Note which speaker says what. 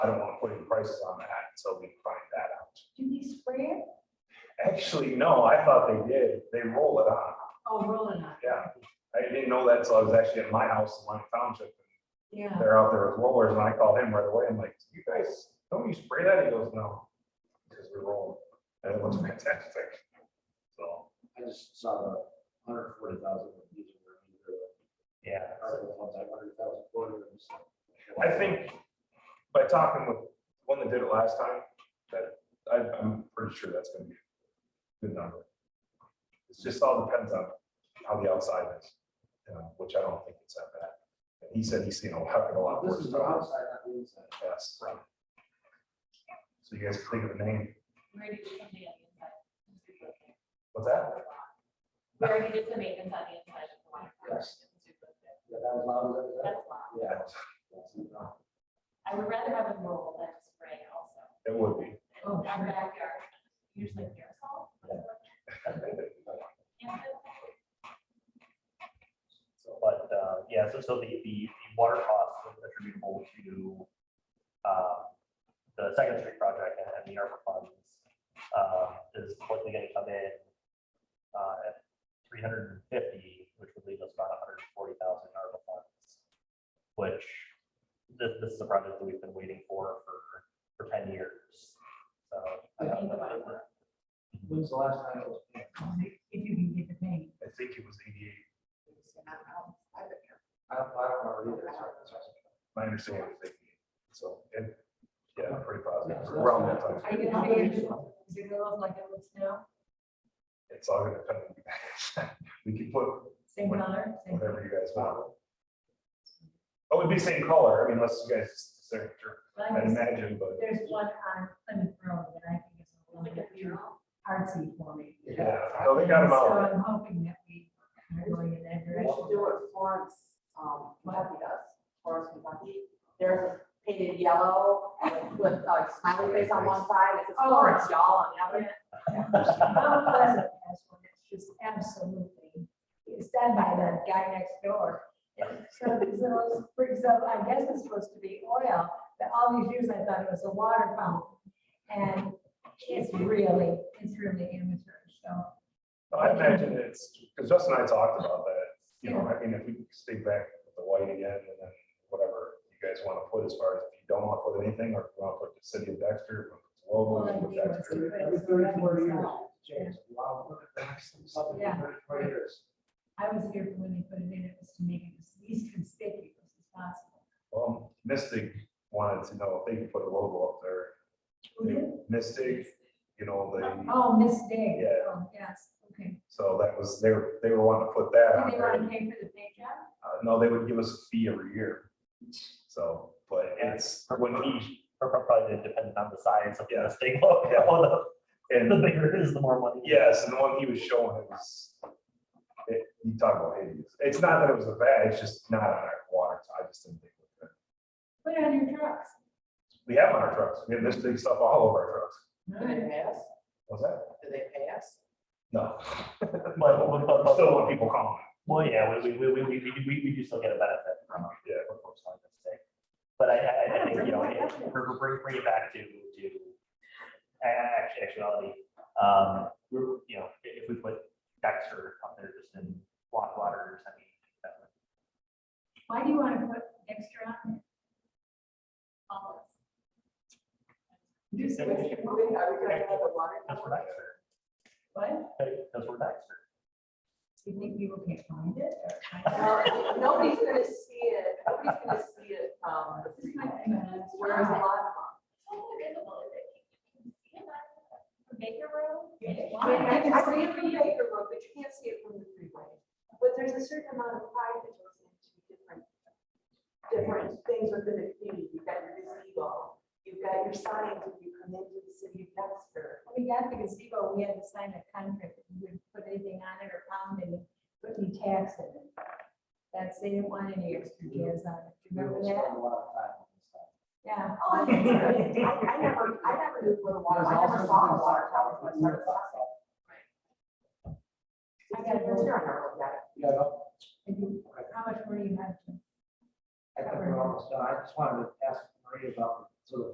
Speaker 1: I don't want to put any prices on that until we find that out.
Speaker 2: Do they spray it?
Speaker 1: Actually, no, I thought they did. They roll it on.
Speaker 2: Oh, rolling on.
Speaker 1: Yeah. I didn't know that till I was actually at my house in my township.
Speaker 2: Yeah.
Speaker 1: They're out there with rollers and I called him right away. I'm like, you guys, don't you spray that? He goes, no. Because we roll. it." And it looks fantastic. So,
Speaker 3: I just saw the hundred forty thousand.
Speaker 1: yeah.
Speaker 3: Hundred thousand voters.
Speaker 1: I think by talking with one that did it last time, that I, I'm pretty sure that's gonna be a good number. It just all depends on how the outside is, you know, which I don't think it's that bad. And he said he's seen a heck of a lot
Speaker 3: This
Speaker 1: worse.
Speaker 3: is the
Speaker 1: towers.
Speaker 3: outside, not the inside.
Speaker 1: Yes. So you guys think of the name,
Speaker 2: We already did some maintenance on the
Speaker 1: what's that?
Speaker 2: inside. We already did some maintenance on the inside of the water. tower.
Speaker 3: Yes. Yeah, that was loud, that was-
Speaker 2: That's loud.
Speaker 3: Yeah. that's not wrong.
Speaker 2: I would rather have a roll than spray also.
Speaker 1: It would be.
Speaker 2: Oh. Our backyard, usually aerosol. Yeah.
Speaker 4: So, but, uh, yeah, so, so the, the, the water costs are attributable to, uh, the Second Street project and and the ARPA funds, uh, is likely gonna come in, uh, at three hundred and fifty, which would leave us about hundred and forty thousand in ARPA funds. Which, this, this is a project that we've been waiting for, for, for ten years, so. I don't know.
Speaker 3: When's the last time it was? painted?
Speaker 5: If you can get the paint.
Speaker 1: I think it was eighty-eight,
Speaker 3: I don't, I don't remember either. Sorry, sorry.
Speaker 1: my understanding was eighty-eight, so, and, yeah, pretty
Speaker 3: Yeah,
Speaker 1: positive,
Speaker 3: so that's
Speaker 1: around that time.
Speaker 3: not-
Speaker 5: Are you gonna figure it out? Is it gonna look like it looks now?
Speaker 1: It's all gonna depend. We can put
Speaker 5: Same
Speaker 1: What-
Speaker 5: color? Same-
Speaker 1: whatever you guys want. Oh, It would be same color, I mean, unless you guys, signature,
Speaker 5: Well, I
Speaker 1: I'd
Speaker 5: guess
Speaker 1: imagine, but
Speaker 5: There's one on Plymouth Road that I think is a
Speaker 2: Like
Speaker 5: little
Speaker 2: a
Speaker 5: bit
Speaker 2: mural.
Speaker 5: artsy for me.
Speaker 1: yeah, no, they got them
Speaker 5: So
Speaker 1: out.
Speaker 5: I'm hoping that we are going in that
Speaker 6: We should
Speaker 5: direction.
Speaker 6: do it Florence, um, Kentucky does, Florence, Kentucky. There's a painted yellow and with a smiley face on one side, it says
Speaker 5: Oh.
Speaker 6: Florence, y'all, on the other.
Speaker 5: Mount Pleasant has one that's just absolutely, it's done by that guy next door. And So these little brings up, I guess it's supposed to be oil, but all these years I thought it was a water fountain. And it's really, it's really immature, so.
Speaker 1: I imagine it's, because Justin and I talked about that, you know, I mean, if we stay back with the white again, and then whatever you guys want to put as far as, if you don't want to put anything, or if you want to put the city of Dexter, logo,
Speaker 5: Well, I think it's-
Speaker 1: Dexter.
Speaker 3: Every thirty-four years, change, wow, look at that, something
Speaker 5: Yeah.
Speaker 3: for thirty-four years.
Speaker 5: I was here for when they put it in, it was to make it as least conspicuous as possible.
Speaker 1: Well, Mystic wanted to know if they could put a logo up there, Mystic, you know, they,
Speaker 5: Mm-hmm. Oh, Miss Day.
Speaker 1: Yeah.
Speaker 5: Oh, Yes, okay.
Speaker 1: so that was, they were, they were wanting to put that on
Speaker 5: Do they
Speaker 1: there.
Speaker 5: want to pay for the paint job?
Speaker 1: Uh, no, they would give us a fee every year. So, but it's, when he,
Speaker 4: Pro- pro- Probably dependent on the size of
Speaker 1: Yeah.
Speaker 4: the state, law.
Speaker 1: Yeah.
Speaker 4: Although, the
Speaker 1: and
Speaker 4: bigger it is, the more money.
Speaker 1: yes, and the one he was showing it was, it, you talk about hideous. It's not that it was a bad, it's just not on our water. so I just didn't think. of it.
Speaker 5: Put it on your trucks.
Speaker 1: We have on our trucks. We have this big stuff all over our trucks.
Speaker 6: Do they pass?
Speaker 1: What's that?
Speaker 6: Do they pass?
Speaker 1: No.
Speaker 4: But, but, but, but-
Speaker 1: Still want people calling.
Speaker 4: Well, yeah, we, we, we, we, we, we, we do still get a benefit from,
Speaker 1: Yeah.
Speaker 4: from folks like this thing. But I, I,
Speaker 6: Oh,
Speaker 4: I think, you know, it- bring, bring, bring it back to, to, a- a- actu- actuality. Um, we're, you know, i- if we put Dexter up there just in block waters, I mean, that would-
Speaker 5: Why do you want to put extra on?
Speaker 2: Olives.
Speaker 5: Just
Speaker 6: Are we gonna have the water?
Speaker 4: that's where Dexter,
Speaker 5: What?
Speaker 4: that- that's where Dexter.
Speaker 5: Do you think people can't find it? or find out?
Speaker 6: Well, Uh, Nobody's gonna see it, nobody's gonna see it, um,
Speaker 2: This is my thing.
Speaker 6: where is the water from?
Speaker 2: Totally visible, is it? You can see it on Baker Road. and it
Speaker 6: I mean,
Speaker 2: winds.
Speaker 6: I can see it from Baker Road, but you can't see it from the freeway. But there's a certain amount of pride that goes into different, different things within the community. You've got your gazebo, you've got your signs when you come into the city of Dexter.
Speaker 5: When We got the gazebo, we had to sign a contract that we wouldn't put anything on it or pound any, put any tax in it. That's, they didn't want any extra jazz on it.
Speaker 3: We
Speaker 5: Remember
Speaker 3: would spend
Speaker 5: that?
Speaker 3: a lot of time on this stuff.
Speaker 5: Yeah.
Speaker 6: Oh, I mean, I, I never, I never knew what a water, I
Speaker 3: There's all sorts
Speaker 6: never saw a
Speaker 3: of
Speaker 6: water
Speaker 3: things.
Speaker 6: tower. when I started talking.
Speaker 5: I
Speaker 6: I
Speaker 5: got
Speaker 6: got
Speaker 5: it.
Speaker 6: a little I never looked at it.
Speaker 3: Yeah, no,
Speaker 5: And you- How much more do you have? to-
Speaker 3: I think we're almost done. I just wanted to ask Marie about